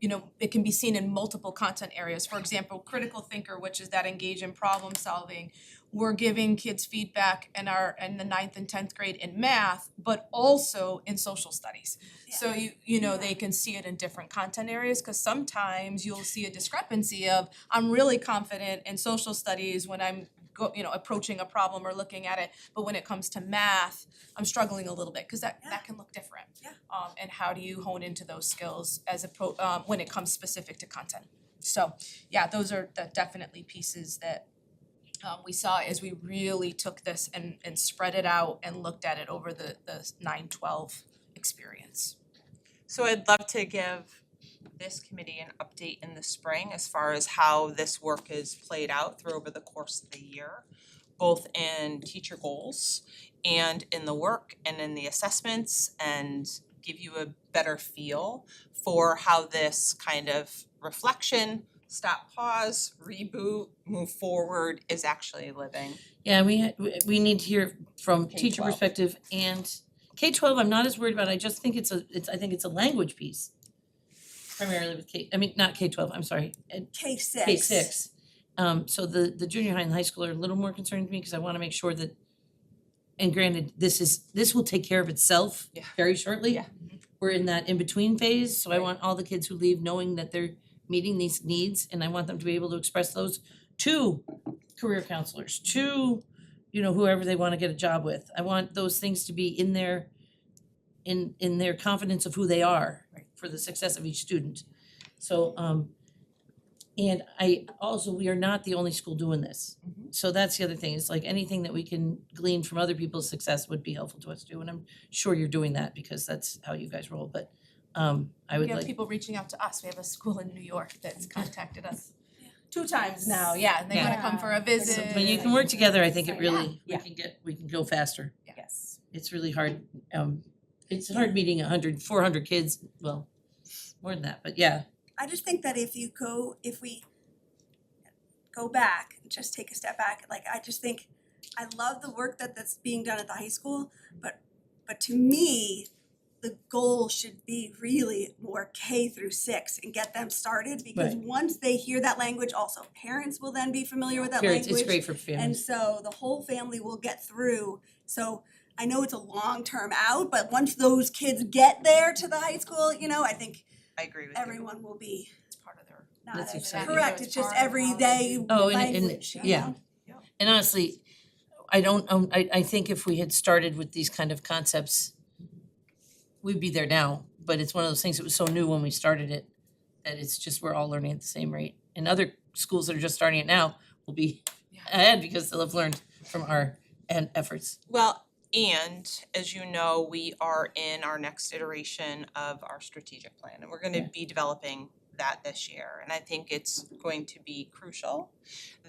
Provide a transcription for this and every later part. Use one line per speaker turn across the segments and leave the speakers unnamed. you know, it can be seen in multiple content areas. For example, critical thinker, which is that engage in problem solving. We're giving kids feedback in our in the ninth and tenth grade in math, but also in social studies. So you you know, they can see it in different content areas, cause sometimes you'll see a discrepancy of I'm really confident in social studies when I'm go, you know, approaching a problem or looking at it, but when it comes to math, I'm struggling a little bit, cause that
Yeah.
that can look different.
Yeah.
Um and how do you hone into those skills as a pro, um when it comes specific to content? So, yeah, those are the definitely pieces that um we saw as we really took this and and spread it out and looked at it over the the nine twelve experience.
So I'd love to give this committee an update in the spring as far as how this work is played out through over the course of the year, both in teacher goals and in the work and in the assessments and give you a better feel for how this kind of reflection, stop, pause, reboot, move forward is actually living.
Yeah, we ha- we we need to hear from
K
teacher
12.
perspective and K twelve, I'm not as worried about, I just think it's a, it's, I think it's a language piece. Primarily with K, I mean, not K twelve, I'm sorry, and
K six.
K six. Um so the the junior high and high school are a little more concerning to me because I wanna make sure that and granted, this is, this will take care of itself
Yeah.
very shortly.
Yeah.
We're in that in-between phase, so I
Right.
want all the kids who leave knowing that they're meeting these needs and I want them to be able to express those to career counselors, to you know, whoever they wanna get a job with. I want those things to be in their in in their confidence of who they are for the success of each student. So um and I also, we are not the only school doing this. So that's the other thing, it's like anything that we can glean from other people's success would be helpful to us too, and I'm sure you're doing that because that's how you guys roll, but um I would
We have
like,
people reaching out to us, we have a school in New York that's contacted us two times now, yeah, and they wanna come for a
so
visit.
when you can work together, I think it
Yeah.
really, we
Yeah.
can get, we can go faster.
Yes.
It's really hard, um it's hard meeting a hundred, four hundred kids, well, more than that, but yeah,
I just think that if you go, if we go back, just take a step back, like I just think, I love the work that that's being done at the high school, but but to me, the goal should be really more K through six and get them started because once they hear that language, also parents will then be familiar with that language.
parents, it's great for
And
families.
so the whole family will get through. So I know it's a long term out, but once those kids get there to the high school, you know, I think
I agree with you.
everyone will be
It's part of their.
not
That's
as
exciting.
correct. It's just everyday
Oh, and- and-
language, you
yeah.
know?
And honestly, I don't, um, I I think if we had started with these kind of concepts, we'd be there now, but it's one of those things that was so new when we started it, that it's just, we're all learning at the same rate. And other schools that are just starting it now will be
Yeah.
ahead because they'll have learned from our and efforts.
Well, and as you know, we are in our next iteration of our strategic plan and we're
Yeah.
gonna be developing that this year. And I think it's going to be crucial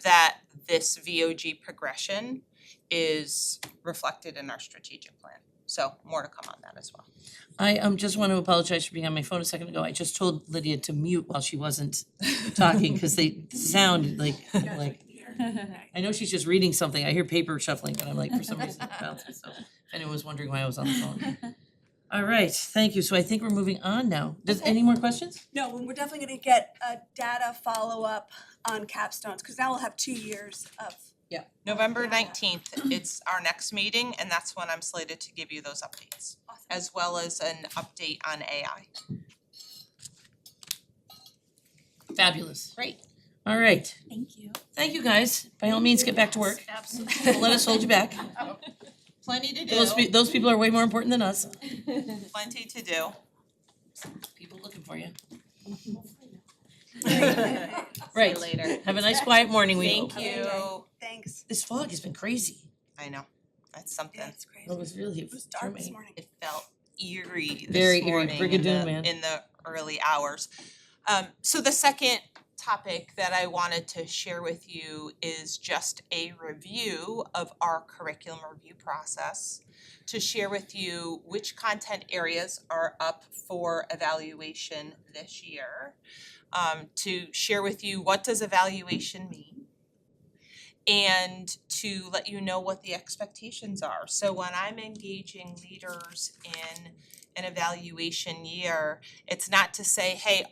that this VOG progression is reflected in our strategic plan. So more to come on that as well.
I um just want to apologize for being on my phone a second ago. I just told Lydia to mute while she wasn't talking, cause they sounded like,
Yeah.
like I know she's just reading something. I hear paper shuffling, but I'm like, for some reason, it bounces. So if anyone was wondering why I was on the phone. All right, thank you. So I think we're moving on now. Does any more questions?
No, and we're definitely gonna get a data follow up on capstones, cause now we'll have two years of
November
Yeah.
nineteenth, it's our next meeting and that's when I'm slated to give you those updates,
awesome.
as well as an update on AI.
Fabulous.
Great.
All right.
Thank you.
Thank you, guys. By all means, get back to work.
Absolutely.
Don't let us hold you back.
Plenty to
Those pe-
do,
those people are way more important than us.
plenty to do.
People looking for you.
See you
Right.
later.
Have a nice quiet morning. We
Thank
hope.
you.
Thanks.
This fog has been crazy.
I know, that's something.
That's crazy.
It was really
It was dark this
Germany.
morning.
It felt eerie
Very
this
eerie,
morning in
Brigadoon,
the,
man.
in the early hours. Um, so the second topic that I wanted to share with you is just a review of our curriculum review process to share with you which content areas are up for evaluation this year. Um, to share with you what does evaluation mean? and to let you know what the expectations are. So when I'm engaging leaders in an evaluation year, it's not to say, hey,